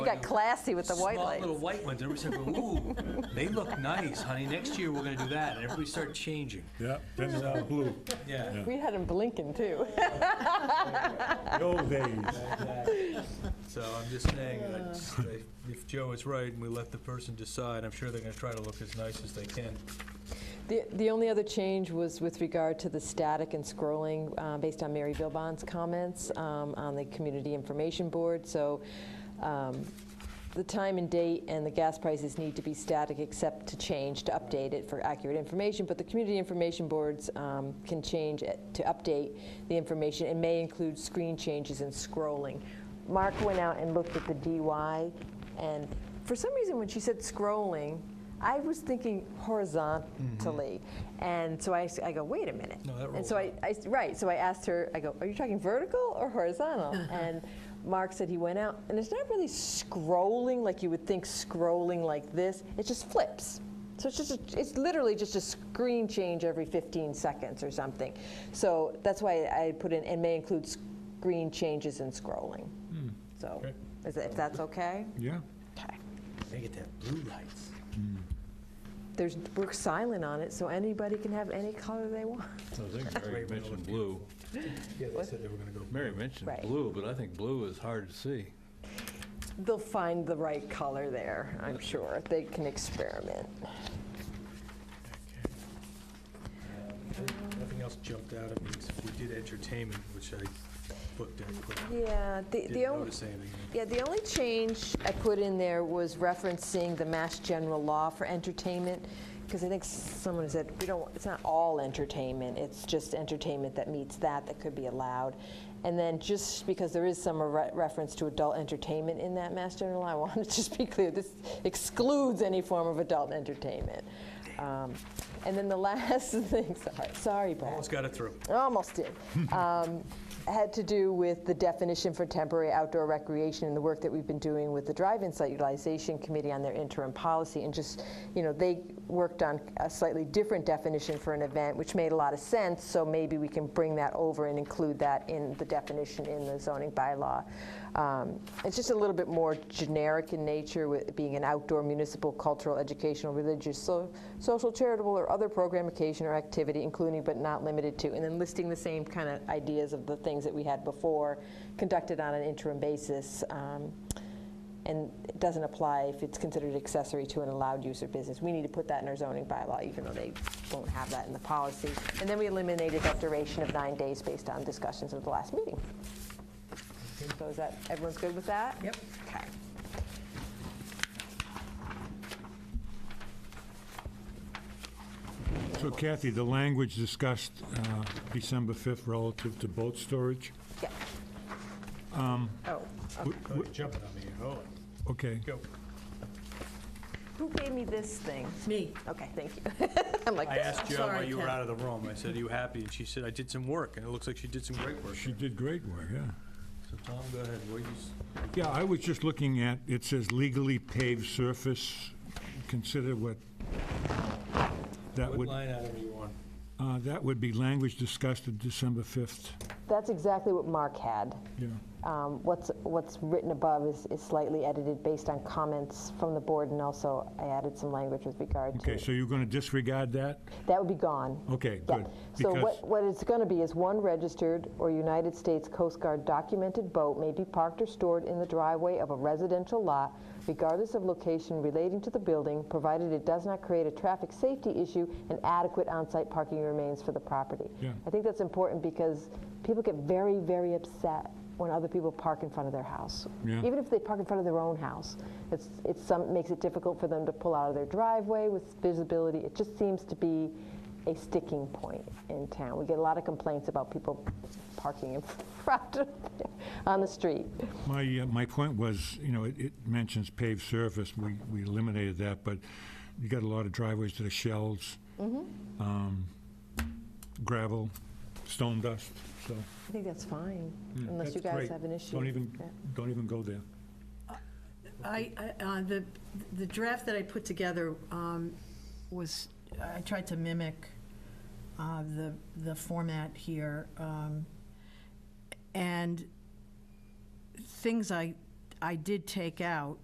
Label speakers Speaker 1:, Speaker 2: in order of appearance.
Speaker 1: got classy with the white
Speaker 2: Small
Speaker 1: lights.
Speaker 2: little white ones, everybody said, ooh, they look nice, honey, next year we're gonna do that, and everybody started changing.
Speaker 3: Yeah, then it's all blue.
Speaker 2: Yeah.
Speaker 1: We had them blinking, too.
Speaker 3: The old days.
Speaker 2: So I'm just saying, that it's- I- if Joe is right and we let the person decide, I'm sure they're gonna try to look as nice as they can.
Speaker 4: The, the only other change was with regard to the static and scrolling, uh, based on Mary Vilbon's comments um, on the Community Information Board. So um, the time and date and the gas prices need to be static except to change, to update it for accurate information. But the Community Information Boards um, can change it to update the information. It may include screen changes and scrolling. Mark went out and looked at the DY, and for some reason, when she said scrolling, I was thinking horizontally, and so I, s- I go, wait a minute.
Speaker 2: Mm-hmm. No, that
Speaker 4: and
Speaker 2: rolls
Speaker 4: so I, I s- right, so I asked her, I go, are you talking vertical or horizontal? and Mark said he went out, and it's not really scrolling like you would think scrolling like this. It just flips. So it's just a, it's literally just a screen change every 15 seconds or something. So that's why I put in and may include screen changes and scrolling. So
Speaker 2: Okay.
Speaker 4: is that, if that's okay.
Speaker 3: Yeah.
Speaker 4: Okay.
Speaker 2: They get that blue lights.
Speaker 4: There's, we're silent on it, so anybody can have any color they want.
Speaker 5: I think Mary mentioned blue.
Speaker 2: Yeah, they said they were gonna go.
Speaker 5: Mary mentioned
Speaker 4: Right.
Speaker 5: blue, but I think blue is hard to see.
Speaker 4: They'll find the right color there, I'm sure. They can experiment.
Speaker 2: Nothing else jumped out at me, except we did entertainment, which I booked at quick.
Speaker 4: Yeah, the, the
Speaker 2: Didn't
Speaker 4: only,
Speaker 2: notice anything.
Speaker 4: yeah, the only change I put in there was referencing the Mass General Law for entertainment, because I think someone said, we don't, it's not all entertainment, it's just entertainment that meets that, that could be allowed. And then just because there is some re- reference to adult entertainment in that Mass General Law, I want to just be clear, this excludes any form of adult entertainment. Um, And then the last thing, sorry, sorry, Brad.
Speaker 2: Almost got it through.
Speaker 4: Almost did. Um, Had to do with the definition for temporary outdoor recreation and the work that we've been doing with the drive-in site utilization committee on their interim policy. And just, you know, they worked on a slightly different definition for an event, which made a lot of sense. So maybe we can bring that over and include that in the definition in the zoning bylaw. Um, It's just a little bit more generic in nature with it being an outdoor municipal, cultural, educational, religious, so, social, charitable, or other program, occasion, or activity, including but not limited to, and then listing the same kind of ideas of the things that we had before, conducted on an interim basis. um, And it doesn't apply if it's considered accessory to an allowed use or business. We need to put that in our zoning bylaw, even though they won't have that in the policy. And then we eliminated that duration of nine days based on discussions at the last meeting. So is that, everyone's good with that? Yep. Okay.
Speaker 3: So Kathy, the language discussed uh, December 5th relative to boat storage.
Speaker 4: Yeah. Oh,
Speaker 3: W-
Speaker 2: Oh, you're
Speaker 3: w-
Speaker 2: Jumping on me here, hold on,
Speaker 3: Okay.
Speaker 2: go.
Speaker 4: who gave me this thing?
Speaker 6: Me.
Speaker 4: Okay, thank you. I'm like,
Speaker 2: I asked Joe why
Speaker 6: sorry,
Speaker 2: you were
Speaker 6: Ken.
Speaker 2: out of the room. I said, "Are you happy?" And she said, "I did some work," and it looks like she did some great work.
Speaker 3: She did great work, yeah.
Speaker 2: So Tom, go ahead. What you s-
Speaker 3: Yeah, I was just looking at, it says legally paved surface, consider what that
Speaker 2: What
Speaker 3: would,
Speaker 2: line item are you on?
Speaker 3: uh, that would be language discussed at December 5th,
Speaker 4: that's exactly what Mark had.
Speaker 3: yeah.
Speaker 4: Um, What's, what's written above is is slightly edited based on comments from the board, and also I added some language with regard to
Speaker 3: Okay, so you're going to disregard that?
Speaker 4: That would be gone.
Speaker 3: Okay,
Speaker 4: Yeah.
Speaker 3: good,
Speaker 4: So
Speaker 3: because-
Speaker 4: what, what it's gonna be is one registered or United States Coast Guard documented boat may be parked or stored in the driveway of a residential lot regardless of location relating to the building, provided it does not create a traffic safety issue and adequate on-site parking remains for the property.
Speaker 3: Yeah.
Speaker 4: I think that's important because people get very, very upset when other people park in front of their house.
Speaker 3: Yeah.
Speaker 4: Even if they park in front of their own house, it's, it's some, makes it difficult for them to pull out of their driveway with visibility. It just seems to be a sticking point in town. We get a lot of complaints about people parking in front of, on the street.
Speaker 3: My, uh, my point was, you know, it- it mentions paved surface, we, we eliminated that, but you got a lot of driveways that are shells,
Speaker 4: Mm-hmm.
Speaker 3: um, gravel, stone dust, so.
Speaker 4: I think that's fine,
Speaker 3: yeah,
Speaker 4: unless you
Speaker 3: Hmm. that's
Speaker 4: guys
Speaker 3: great.
Speaker 4: have an issue.
Speaker 3: Don't even,
Speaker 4: Yeah.
Speaker 3: don't even go there.
Speaker 6: I, I- uh, the, the draft that I put together um, was, I tried to mimic uh, the, the format here. um, And things I, I did take out